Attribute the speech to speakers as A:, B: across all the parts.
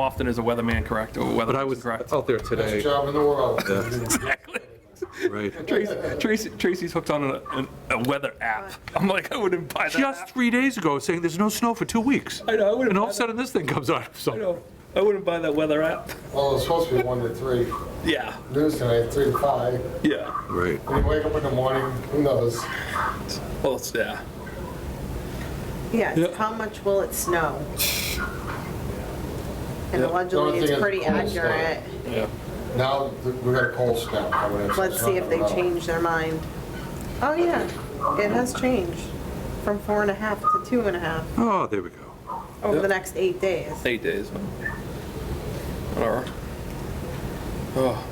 A: often is a weatherman correct or a
B: But I
A: weather
B: was oh.
A: correct?
B: out there today,
C: Best job in the world.
A: Exactly.
B: right?
A: Tracy, Tracy- Tracy's hooked on a, an- a weather app. I'm like, I wouldn't buy that
B: Just
A: app.
B: three days ago, saying there's no snow for two weeks.
A: I know, I wouldn't
B: And all
A: buy
B: of a
A: that.
B: sudden, this thing comes out,
A: I
B: so.
A: know. I wouldn't buy that weather app.
C: Well, it's supposed to be one to three.
A: Yeah,
C: News tonight, three to five.
A: yeah.
B: Right.
C: When you wake up in the morning, who knows?
A: Well, it's, yeah.
D: Yes,
A: Yeah.
D: how much will it snow?
A: Yeah.
D: And
C: Don't
D: allegedly,
C: think
D: it's
C: it's
D: pretty
C: cold snow.
D: accurate.
A: Yeah.
C: Now, th- we got a cold snap coming in. so
D: Let's
C: it's
D: see
C: not
D: if they
C: gonna-
D: change their mind. Oh, yeah, it has changed from four and a half to two and a half
B: Oh, there we go.
D: over the next eight days.
A: Eight days. Whatever. Oh,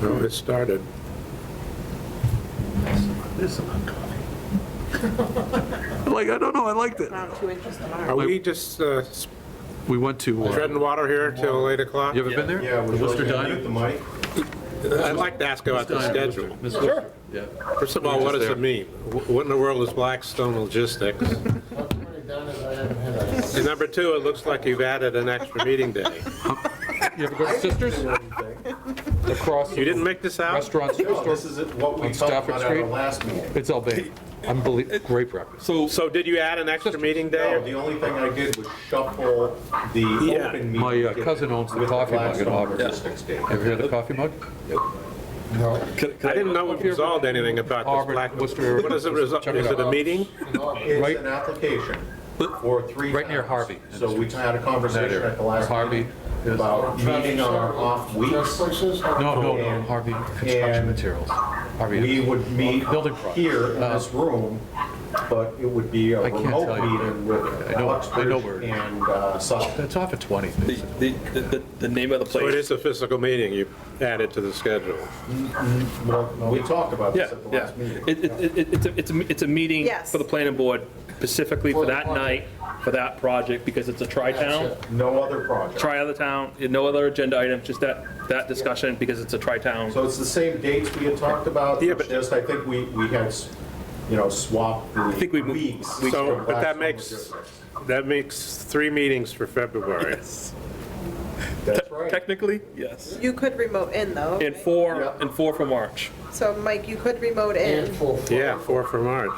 E: No, it started.
B: Like, I don't know, I liked it.
D: Around two inches
E: Are
D: tomorrow.
E: we just uh,
B: We went to, uh,
E: treading water here till 8 o'clock?
B: you ever been there?
F: Yeah,
B: The
F: would you like
B: Worcester
F: me to
B: Diner?
F: mute the mic?
E: I'd like to ask about the schedule.
B: Sure. Yeah.
E: First of all, what does it mean? Wh- What in the world is Blackstone Logistics?
C: Not too many diners I haven't had.
E: And number two, it looks like you've added an extra meeting day.
B: You ever go to Sisters? Across
E: You didn't make this out?
B: restaurants,
F: No, this is what we
B: On
F: talked
B: Stafford
F: about at
B: Street?
F: our last meeting.
B: it's Albany. Unbelievable, great breakfast.
A: So,
E: So did you add an extra meeting
F: No,
E: day?
F: the only thing I did was shuffle the
E: Yeah.
F: open meeting.
B: My, uh, cousin owns the
F: with
B: coffee mug in
F: Blackstone
B: Auburn.
F: Logistics Day.
B: Ever had a coffee mug?
C: No.
E: I didn't know we resolved anything about
B: Auburn,
E: this Black.
B: Worcester.
E: What is it, resol- is it a meeting?
B: Right-
F: It's an application for three.
B: Right near
F: towns.
B: Harvey.
F: So we had a conversation at the last
B: Harvey.
F: meeting about meeting on our off weeks.
B: No, no, no, Harvey Construction
F: And-
B: Materials.
F: We
B: Harvey,
F: would meet
B: Building products. Uh,
F: here in this room, but it would be a
B: I can't
F: remote
B: tell you.
F: meeting with
B: I know- I know where
F: Uxbridge
B: it is.
F: and uh, Sutton.
B: that's off at 20.
A: the, the, the, the name of the
E: So it
A: place.
E: is a physical meeting you added to the schedule.
F: We talked about
A: Yeah,
F: this at the
A: yeah.
F: last meeting.
A: It, it, it- it's a, it's a, it's a meeting
D: Yes.
A: for the planning board specifically for
C: For the
A: that night,
C: project.
A: for that project, because it's a tri-town.
F: No other project.
A: Try other town, no other agenda item, just that, that discussion because it's a tri-town.
F: So it's the same dates we had talked about,
E: Yeah,
F: it's
E: but-
F: just I think we, we had, s- you know, swapped the
A: think we moved-
F: weeks.
E: So,
F: from
E: but
F: Blackstone
E: that makes,
F: Logistics.
E: that makes three meetings for February.
F: That's right.
A: Technically, yes.
D: You could remote in, though.
A: And
D: right?
A: four,
F: Yeah.
A: and four for March.
D: So, Mike, you could remote in.
C: And full.
E: Yeah, four for March.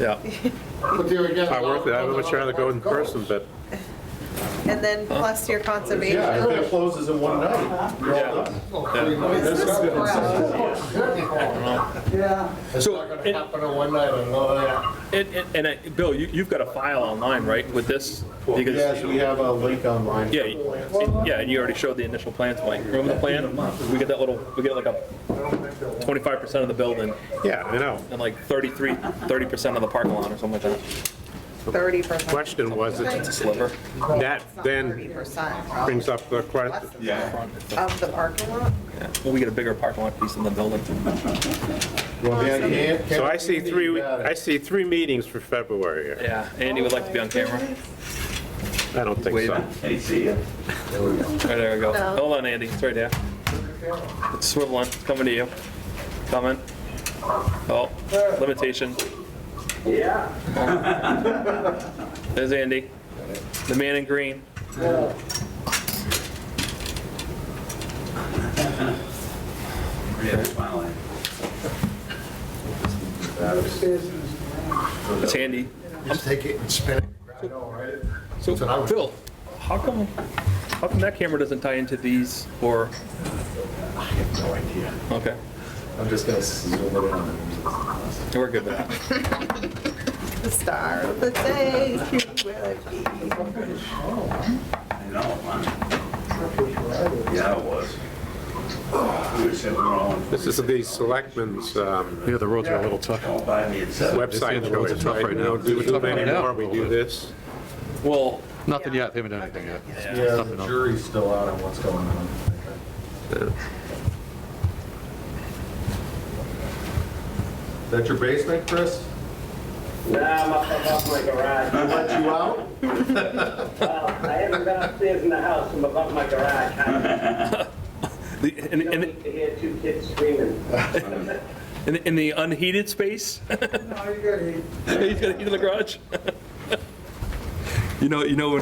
A: Yeah.
C: But there again.
E: I work there, I would much rather go in person, but
D: And then plus your
F: Yeah,
D: conservation.
F: if it closes in one night, you're all done.
D: Is this gross?
C: It's
A: So,
C: not gonna
A: and-
C: happen in one night, I know that.
A: And, and- and, I- Bill, you, you've got a file online, right, with this? Because-
F: Yes, we have a link online.
A: Yeah, you- yeah, and you already showed the initial plans, Mike. Remember the plan? We get that little, we get like a 25% of the building
E: yeah, I know.
A: and like 33, 30% of the parking lot or something like that.
D: Thirty percent.
E: Question was,
A: It's a
E: it-
A: sliver.
E: that
D: Thirty
E: then
D: percent
E: brings up the question,
F: Yeah.
D: of the parking lot?
A: Well, we get a bigger parking lot piece in the building.
F: Well, Dan, Dan,
E: so
F: can-
E: I see three,
F: you
E: we-
F: got it.
E: I see three meetings for February here.
A: Yeah, Andy would like to be on camera. Right,
E: I don't think so.
A: there we go.
D: No.
A: Hold on, Andy, it's right there. It's swiveling, it's coming to you. Coming. Oh, limitation. Yeah. There's Andy, the man in green. It's Andy.
C: Just take it and spin it. I know, right?
A: So,
C: what I would-
A: Bill, how come, how come that camera doesn't tie into these or,
F: I have no idea.
A: okay,
F: I'm just gonna zoom it in.
A: we're good with that.
D: The star of the day, who will it be?
G: I know, man. Yeah, it was. We were sitting around.
E: This is the selectmen's um,
B: Yeah, the roads are a little tough.
G: Don't buy me a set.
E: website choice, right? We don't do too many more, we do this.
A: Well,
B: Nothing yet, they haven't done anything yet.
F: Yeah,
B: Nothing
F: the
B: else.
F: jury's still out on what's going on. Is that your basement, Chris?
H: Nah, I'm up above my garage.
F: I let you out?
H: Well, I haven't been upstairs in the house, I'm above my garage. I
A: the- in,
H: don't
A: in,
H: need to hear two kids screaming.
A: in in the unheated space? No, you got heat. He's got heat in the garage? You know, you know when